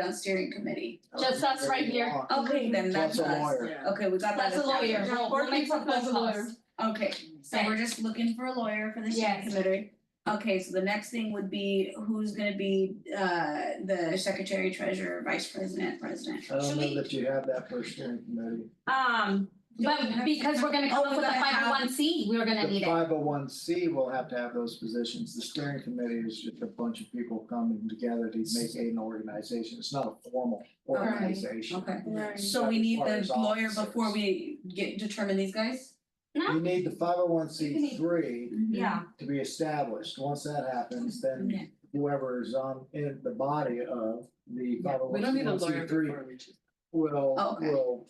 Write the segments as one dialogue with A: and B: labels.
A: on steering committee.
B: Just us right here.
A: Okay, then that's
C: That's a
A: us.
C: lawyer.
A: Okay, we got that.
B: That's a lawyer.
A: established.
B: We'll, we'll make some phone calls.
A: Okay, so we're just looking for a lawyer for the steering
B: Yes.
A: committee. Okay, so the next thing would be who's gonna be uh the secretary, treasurer, vice president, president.
C: I don't
B: Should
C: know
B: we-
C: that you have that for steering committee.
B: Um, but because we're gonna come up with a
A: Oh, we're gonna
B: five oh
A: have-
B: one C, we were gonna need
C: The
B: it.
C: five oh one C will have to have those positions. The steering committee is just a bunch of people coming together to make an organization. It's not a formal
A: Okay.
C: organization.
A: Okay,
B: Right.
A: so we need the
C: Requires
A: lawyer
C: officers.
A: before we get determine these guys?
C: You need the five oh one C three
B: Yeah,
C: to be established. Once that happens, then
A: Okay.
C: whoever is on in the body of the five oh
D: We don't need a
C: one C
D: lawyer
C: three
D: before we choose.
C: will
A: Oh, okay.
C: will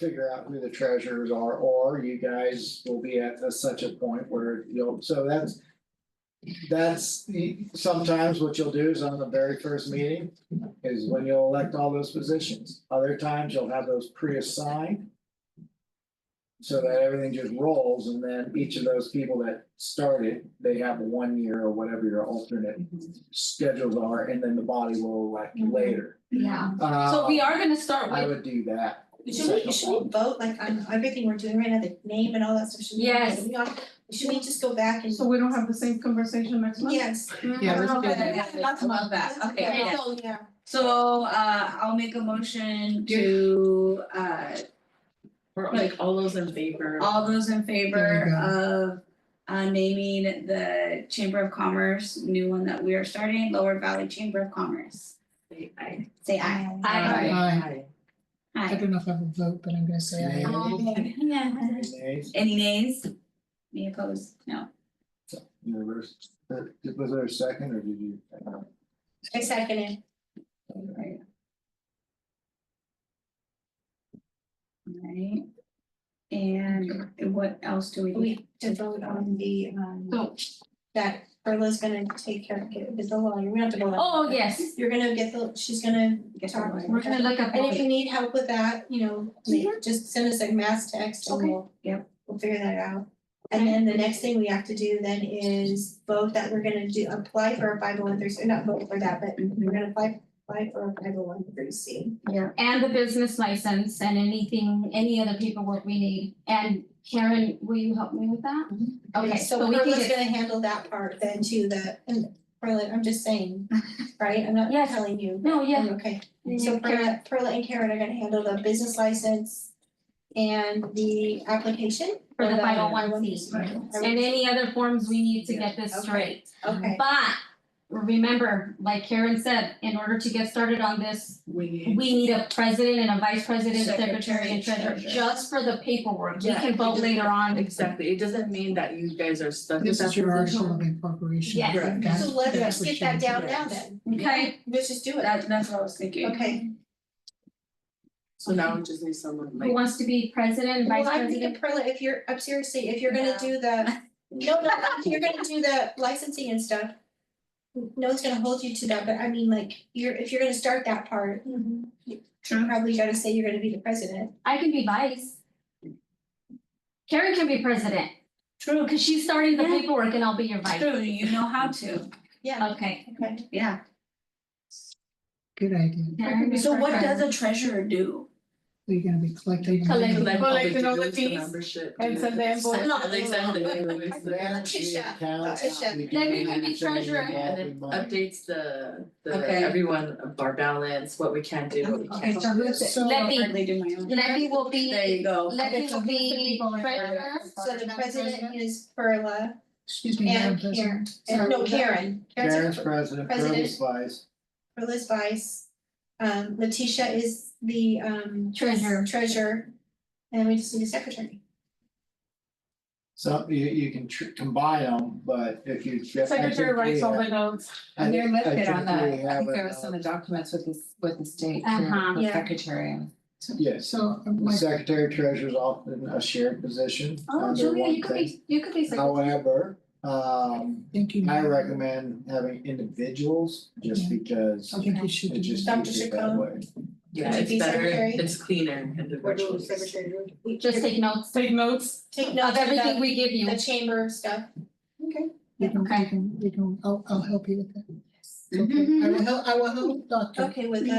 C: figure out who the treasurers are, or you guys will be at a- such a point where you'll, so that's that's the- sometimes what you'll do is on the very first meeting is when you'll elect all those positions. Other times you'll have those pre-assigned so that everything just rolls and then each of those people that started, they have one year or whatever your alternate
B: Mm-hmm.
C: schedules are, and then the body will elect later.
B: yeah.
C: Uh,
B: Mm-hmm. So we are gonna start
C: I
B: with,
C: would do that.
E: Should we, should we vote like on everything we're doing right now, the name and all that stuff, should we?
B: Yes.
E: we all- Should we just go back and?
F: So we don't have the same conversation next month?
E: Yes.
D: Yeah, let's do
A: Okay,
D: that.
A: yeah, I love that, okay,
B: Okay,
A: yeah.
B: so-
E: Yeah.
A: So uh I'll make a motion to uh
D: We're like all those in favor.
A: All those in favor of uh naming the Chamber of Commerce, new one that we are starting, Lower Valley Chamber of Commerce.
D: Say aye.
A: Say aye.
B: I,
D: Aye.
G: I don't know if I would vote, but I'm gonna say aye.
E: Um,
C: Nay,
A: Yeah.
C: nay,
A: Any nays? Any opposed? No.
C: universe, Uh, was there a second or did you?
E: I second it.
A: Alright. Alright. And what else do we need?
E: We to vote on the um
A: Oh.
B: So-
E: that Carla's gonna take care of it with the lawyer, we don't have to go. on.
B: oh, yes.
E: You're gonna get the, she's gonna
A: Get
E: talk.
A: the lawyer.
B: We're gonna look up.
E: And if you need help with that, you know,
B: Mm-hmm.
E: ma- just send us a mass text and
A: Okay.
E: we'll
A: Yep.
E: we'll figure that out. And then the next thing we have to do then is vote that we're gonna do, apply for a five oh one three, not vote for that, but
A: Mm-hmm.
E: we're gonna apply apply for a five oh one three C.
B: and the business license and anything, any other paperwork we need. And Karen, will you help me with that? Okay, Mm-hmm. so we can
E: Carla's
B: get,
E: gonna handle that part then too, the, and Carla, I'm just saying, right, I'm not
B: Yes.
E: telling you. Oh,
B: no, yeah.
E: Okay,
B: Mm-hmm.
E: so Perla, Perla and Karen are gonna handle the business license and the application.
B: For the
E: or
B: 501c. And any other forms we need to get this
E: Okay.
B: straight.
E: Okay,
B: But remember, like Karen said, in order to get started on this,
D: We
B: we
D: need.
B: need a president and a vice president,
A: Secretary,
B: secretary and treasurer,
A: treasurer.
B: just for the paperwork. We
D: Yeah,
B: can vote
D: just-
B: later on.
D: Exactly, it doesn't mean that you guys are stuck with
G: This
D: that
G: is your
D: position.
G: arsenal of incorporation.
B: Yes.
D: Correct.
G: That's-
E: so let's
G: that's
E: just
G: what
E: get
G: you
E: that down
G: do.
E: now then,
B: Okay,
E: let's just do it,
A: That that's what I was thinking.
E: okay.
D: So now we just need someone
B: who
D: like,
B: wants to be president,
E: Well,
B: vice
E: I'm
B: president?
E: thinking Perla, if you're, i seriously, if you're
A: No.
E: gonna do the, no, no, if you're gonna do the licensing and stuff. No one's gonna hold you to that, but I mean, like, you're, if you're gonna start that part, you probably gotta say you're gonna be the president.
B: I can be vice. Karen can be president,
A: True.
B: because she's starting the
A: Yeah.
B: paperwork and I'll be your vice.
A: True, you know how to,
E: Yeah.
B: Okay.
E: Okay.
A: yeah.
G: Good idea.
B: Karen is
A: So
B: our
A: what does
B: president.
A: a treasurer do?
G: So you're gonna be collecting.
B: Collect-
D: collect all the
F: Collecting all the
D: dues, the
F: fees
D: membership.
F: and send the
D: dues,
F: invoice.
D: and they send the invoice, the-
C: Uh,
E: Tisha, Tisha.
B: Then we can be treasurer.
D: And it updates the, the,
A: Okay.
D: everyone of our balance, what we can do, what we can't.
A: Okay, so who's it?
G: So-
B: Let me-
A: Hardly do my own.
B: Levy will be.
A: There you go.
B: Levy
G: Okay, so
B: will
G: who's the
B: be
G: people in
B: treasurer.
G: charge?
E: So the president is Perla
G: Excuse me, Madam
E: and
G: President.
E: Karen, and no,
B: So-
E: Karen, Karen's
C: Karen's president,
E: President.
C: Curtis vice.
E: Perla's vice. Um, Letitia is the um.
B: Treasurer.
E: Treasurer, and we just need a secretary.
C: So you you can tr- combine them, but if you. get- I
F: Secretary
C: think we
F: writes all
C: have-
F: the notes.
C: I
H: And they're
C: think- I
H: listed on
C: think
H: the,
C: we
H: I
C: have
H: think there
C: it,
H: was in
C: uh,
H: the documents with the, with the state,
B: Uh-huh.
H: for the
E: Yeah.
H: secretary.
C: Yes,
G: So, uh,
C: the
G: my-
C: secretary treasurer's often a shared position
B: Oh,
C: under
B: Julia,
C: one
B: you could
C: thing.
B: be, you could be secretary.
C: However, um,
G: thank you.
C: I
G: Madam.
C: recommend having individuals just
G: Yeah.
C: because
G: I think you should
C: it
G: do
C: just
G: that.
E: Dr.
C: keeps it that
E: Chacon.
C: way.
D: Yeah,
E: To
D: it's
E: be
D: better,
E: secretary.
D: it's cleaner and the virtual.
E: We
B: Just take notes
F: Take notes.
E: Take note
B: of
E: of
B: everything
E: the,
B: we give you.
E: the chamber stuff. Okay.
G: We can,
B: Okay.
E: Mm-hmm.
G: we can, we can, I'll, I'll help you with that. Okay, I will help, I will help Dr.
E: Okay, with that.